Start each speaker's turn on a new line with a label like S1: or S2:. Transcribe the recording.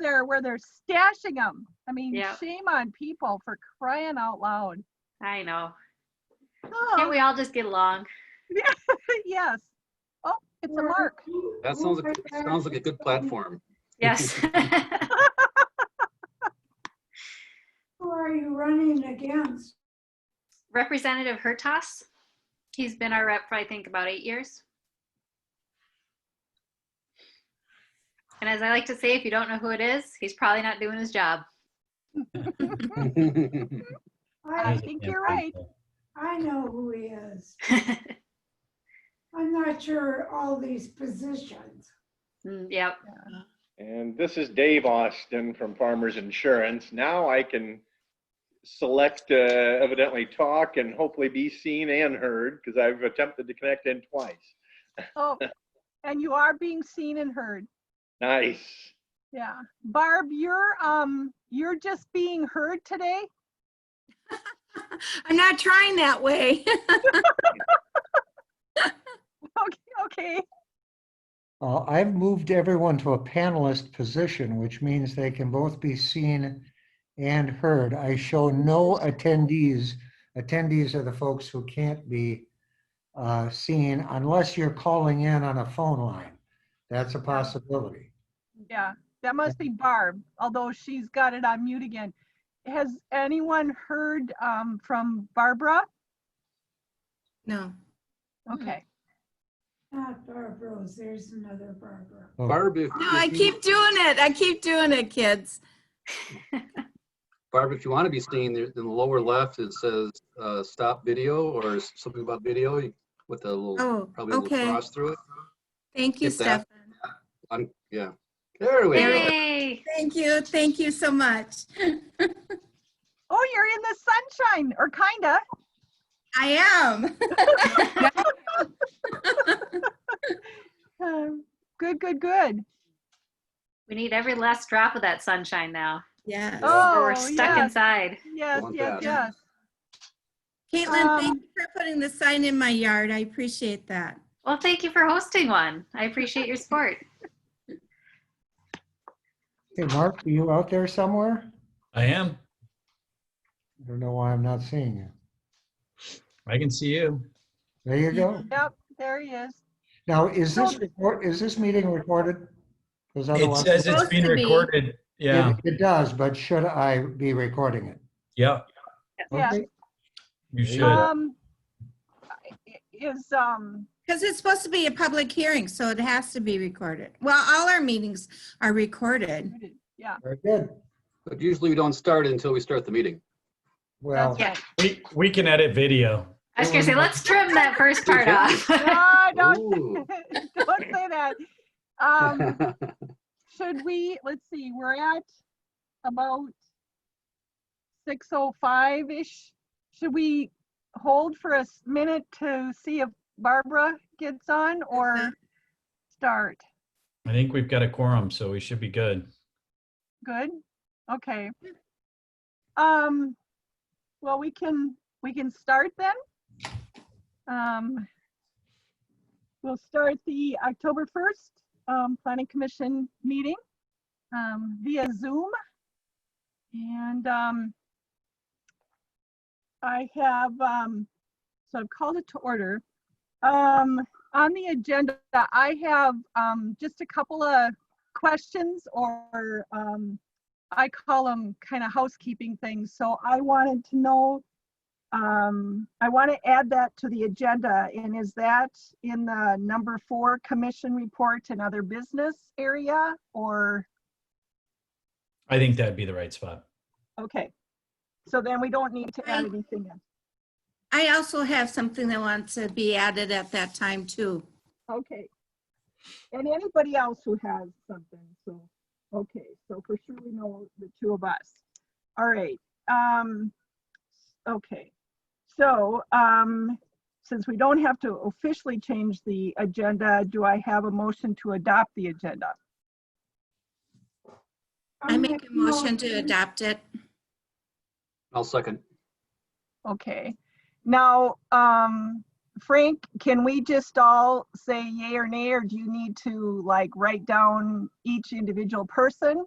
S1: they're where they're stashing them. I mean,
S2: Yeah.
S1: shame on people for crying out loud.
S2: I know. Can't
S1: Oh,
S2: we all just get along?
S1: yes. Oh, it's a mark.
S3: That sounds, like- sounds like a good platform.
S2: Yes.
S4: Who are you running against?
S2: Representative Hertas. He's been our rep for, I think, about eight years. And as I like to say, if you don't know who it is, he's probably not doing his job.
S1: I
S4: I,
S1: think you're right.
S4: I know who he is. I'm not sure all these positions.
S2: Mm, yep.
S5: And this is Dave Austin from Farmers Insurance. Now I can select uh, evidently talk and hopefully be seen and heard because I've attempted to connect in twice.
S1: Oh, and you are being seen and heard.
S5: Nice.
S1: Yeah. Barb, you're, um, you're just being heard today.
S6: I'm not trying that way.
S1: Okay, okay.
S7: Uh, I've moved everyone to a panelist position, which means they can both be seen and heard. I show no attendees. Attendees are the folks who can't be uh, seen unless you're calling in on a phone line. That's a possibility.
S1: Yeah, that must be Barb, although she's got it on mute again. Has anyone heard, um, from Barbara?
S6: No.
S1: Okay.
S4: Not Barbara's, there's another Barbara.
S7: Oh,
S3: Barb, if,
S6: No, I
S3: if you-
S6: keep doing it. I keep doing it, kids.
S3: Barb, if you want to be seen, there- in the lower left, it says, uh, stop video or s- something about video you- with a little,
S6: Oh,
S3: probably a little
S6: okay.
S3: cross through it.
S6: Thank you,
S3: Hit that.
S6: Stefan.
S3: I'm, yeah. There we go.
S2: Yay.
S6: Thank you. Thank you so much.
S1: Oh, you're in the sunshine, or kinda.
S6: I am.
S1: Um, Good, good, good.
S2: We need every last drop of that sunshine now.
S6: Yeah.
S1: Oh,
S2: or we're stuck
S1: yes.
S2: inside.
S1: Yes,
S3: Want
S1: yes,
S3: that.
S1: yes.
S6: Caitlin, thank
S1: Um,
S6: you for putting the sign in my yard. I appreciate that.
S2: Well, thank you for hosting one. I appreciate your support.
S7: Hey, Mark, are you out there somewhere?
S8: I am.
S7: I don't know why I'm not seeing you.
S8: I can see you.
S7: There you go.
S1: Yep, there he is.
S7: Now, is this, record- is this meeting recorded? Because
S8: It
S7: otherwise,
S8: says it's
S6: Supposed
S8: being
S6: to be.
S8: recorded. Yeah.
S7: It- It does, but should I be recording it?
S8: Yeah.
S1: Yeah.
S7: Okay.
S8: You should.
S1: Um, i- is, um,
S6: Because it's supposed to be a public hearing, so it has to be recorded. Well, all our meetings are recorded.
S1: yeah,
S7: Very good.
S3: But usually we don't start until we start the meeting.
S7: Well,
S1: that's right.
S8: We, we can edit video.
S2: I was gonna say, let's trim that first part off.
S1: No, don't,
S3: Ooh.
S1: don't say that. Um, should we, let's see, we're at about six oh five-ish. Should we hold for a s- minute to see if Barbara gets on or start?
S8: I think we've got a quorum, so we should be good.
S1: Good, okay. Um, well, we can, we can start then. Um, we'll start the October 1st, um, Planning Commission meeting, um, via Zoom. And, um, I have, um, so I've called it to order. Um, on the agenda, I have, um, just a couple of questions or um, I call them kind of housekeeping things. So I wanted to know, um, I want to add that to the agenda. And is that in the number four commission report and other business area or,
S8: I think that'd be the right spot.
S1: okay. So then we don't need to add
S6: Right.
S1: anything in.
S6: I also have something that wants to be added at that time, too.
S1: Okay. And anybody else who has something, so, okay, so for sure we know the two of us. All right, um, okay. So, um, since we don't have to officially change the agenda, do I have a motion to adopt the agenda?
S4: Um,
S6: I make a motion to adopt it.
S3: I'll second.
S1: Okay. Now, um, Frank, can we just all say yay or nay, or do you need to like write down each individual person?